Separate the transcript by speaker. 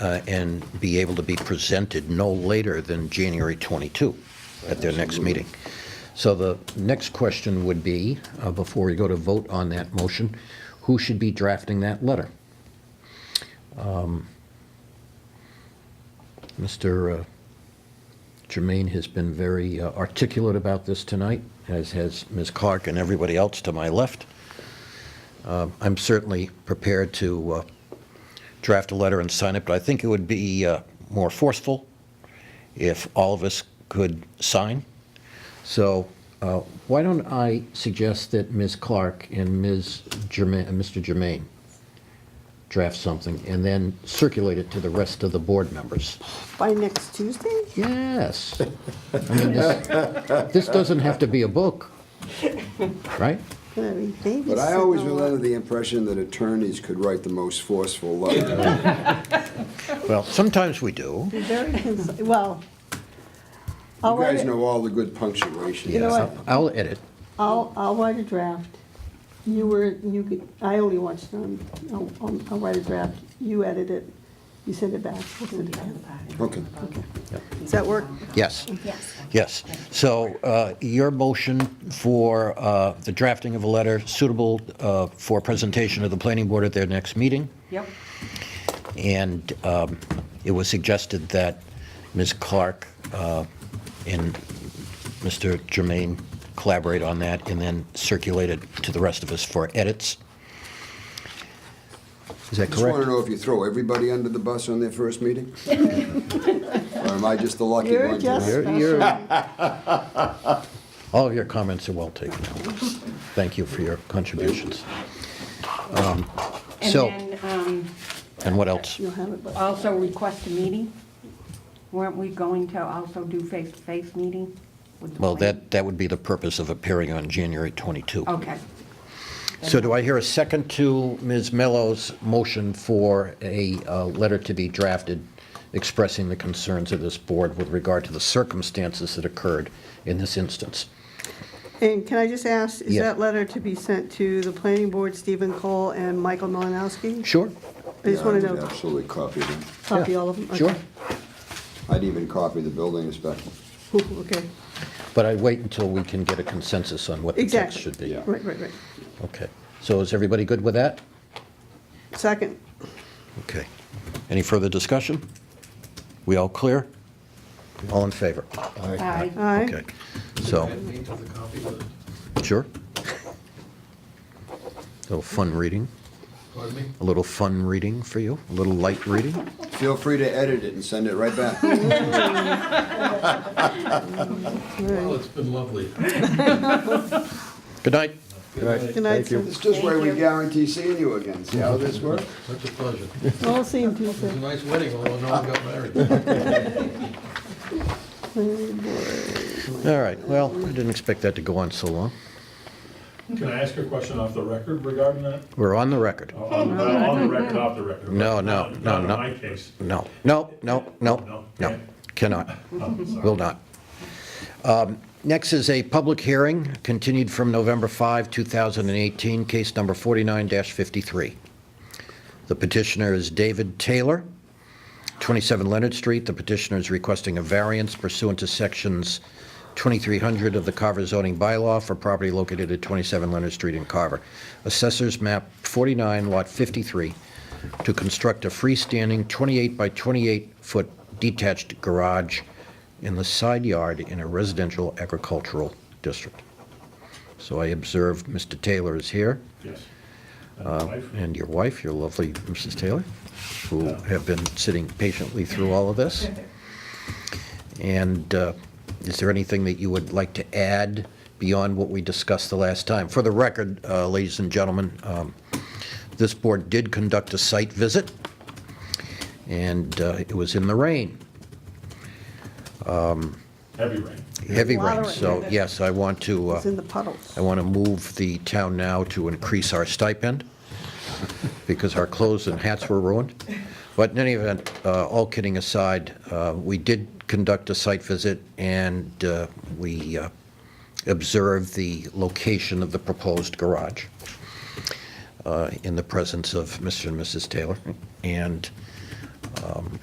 Speaker 1: uh, and be able to be presented no later than January 22 at their next meeting. So the next question would be, uh, before we go to vote on that motion, who should be drafting that letter? Um, Mr. uh, Jermaine has been very uh, articulate about this tonight, as has Ms. Clark and everybody else to my left. Um, I'm certainly prepared to uh, draft a letter and sign it, but I think it would be uh, more forceful if all of us could sign. So uh, why don't I suggest that Ms. Clark and Ms. Germain, and Mr. Germain draft something and then circulate it to the rest of the board members?
Speaker 2: By next Tuesday?
Speaker 1: Yes. I mean, this, this doesn't have to be a book, right?
Speaker 2: Gonna be babysitting.
Speaker 3: But I always
Speaker 2: a
Speaker 3: was
Speaker 2: lot.
Speaker 3: under the impression that attorneys could write the most forceful
Speaker 2: Oh,
Speaker 3: letter.
Speaker 1: Well, sometimes we do.
Speaker 2: Be very, cons- well.
Speaker 3: You
Speaker 2: I'll
Speaker 3: guys
Speaker 2: write a-
Speaker 3: know all the good punctuation.
Speaker 2: You know what?
Speaker 1: I'll edit.
Speaker 2: I'll, I'll write a draft. You were, you, could- I only watched it on, I'll- I'll, I'll write a draft. You edit it, you send it back. We'll send it back.
Speaker 3: Okay.
Speaker 2: Okay. Does that work?
Speaker 1: Yes.
Speaker 4: Yes.
Speaker 1: Yes. So uh, your motion for uh, the drafting of a letter suitable uh, for presentation to the planning board at their next meeting,
Speaker 5: Yep.
Speaker 1: and um, it was suggested that Ms. Clark uh, and Mr. Germain collaborate on that and then circulate it to the rest of us for edits. Is that
Speaker 3: Just want to
Speaker 1: correct?
Speaker 3: know if you throw everybody under the bus on their first meeting? Or am I just the lucky
Speaker 2: You're
Speaker 3: one?
Speaker 2: just
Speaker 3: tonight?
Speaker 1: You're- you're-
Speaker 2: special.
Speaker 1: All of your comments are well taken. Thank you for your contributions. Um,
Speaker 5: And
Speaker 1: So,
Speaker 5: then um,
Speaker 1: and what else?
Speaker 2: You'll have it by.
Speaker 5: also request a meeting. Weren't we going to also do face-to-face meeting? with the
Speaker 1: Well,
Speaker 5: plan?
Speaker 1: that, that would be the purpose of appearing on January 22.
Speaker 5: Okay.
Speaker 1: So do I hear a second to Ms. Mello's motion for a uh, letter to be drafted expressing the concerns of this board with regard to the circumstances that occurred in this instance?
Speaker 2: And can I just ask, is
Speaker 1: Yeah.
Speaker 2: that letter to be sent to the planning board, Stephen Cole and Michael Malinowski?
Speaker 1: Sure?
Speaker 2: I just
Speaker 3: Yeah, I
Speaker 2: want
Speaker 3: would
Speaker 2: to know,
Speaker 3: Absolutely copy them.
Speaker 2: copy
Speaker 1: Yeah.
Speaker 2: all of them? Okay.
Speaker 1: Sure.
Speaker 3: I'd even copy the building inspector.
Speaker 2: Ooh, Okay,
Speaker 1: But I wait until we can get a consensus on what the text
Speaker 2: Exactly.
Speaker 1: should be.
Speaker 3: Yeah.
Speaker 2: right, right, right.
Speaker 1: Okay. So is everybody good with that?
Speaker 2: Second,
Speaker 1: Okay. Any further discussion? We all clear? All in favor?
Speaker 5: Aye.
Speaker 2: aye.
Speaker 1: Okay. So. Sure. Little fun reading,
Speaker 6: Pardon me?
Speaker 1: a little fun reading for you, a little light reading.
Speaker 3: Feel free to edit it and send it right back.
Speaker 6: Well, it's been lovely.
Speaker 1: Good night.
Speaker 2: Good night, sir.
Speaker 3: It's just where we guarantee seeing you again. See how this works?
Speaker 6: Such a pleasure.
Speaker 2: All same
Speaker 6: It was a
Speaker 2: Tuesday.
Speaker 6: nice wedding, although no one got married.
Speaker 1: All right, well, I didn't expect that to go on so long.
Speaker 7: Can I ask a question off the record regarding that?
Speaker 1: We're on the record.
Speaker 7: On the on the record, off the record?
Speaker 1: No, no,
Speaker 7: Not-
Speaker 1: no,
Speaker 7: Not in
Speaker 1: no.
Speaker 7: my case.
Speaker 1: No, no, no, no,
Speaker 7: No,
Speaker 1: no,
Speaker 7: okay.
Speaker 1: cannot,
Speaker 7: Oh, sorry.
Speaker 1: will not. Um, Next is a public hearing, continued from November 5, 2018, case number 49-53. The petitioner is David Taylor, 27 Leonard Street. The petitioner is requesting a variance pursuant to sections 2300 of the Carver zoning bylaw for property located at 27 Leonard Street in Carver. Assessors map 49, lot 53, to construct a freestanding 28 by 28-foot detached garage in the side yard in a residential agricultural district. So I observe Mr. Taylor is here
Speaker 7: Yes. And my wife?
Speaker 1: Uh, and your wife, your lovely Mrs. Taylor, who have been sitting patiently through all of this. And uh, is there anything that you would like to add beyond what we discussed the last time? For the record, uh, ladies and gentlemen, um, this board did conduct a site visit, and uh, it was in the rain,
Speaker 7: Heavy rain.
Speaker 1: heavy
Speaker 2: A lot of
Speaker 1: rain.
Speaker 2: rain.
Speaker 1: So, yes, I want to,
Speaker 2: It's in the
Speaker 1: uh,
Speaker 2: puddles.
Speaker 1: I want to move the town now to increase our stipend, because our clothes and hats were ruined. But in any event, uh, all kidding aside, uh, we did conduct a site visit, and uh, we uh, observed the location of the proposed garage uh, in the presence of Mr. and Mrs. Taylor. And Um,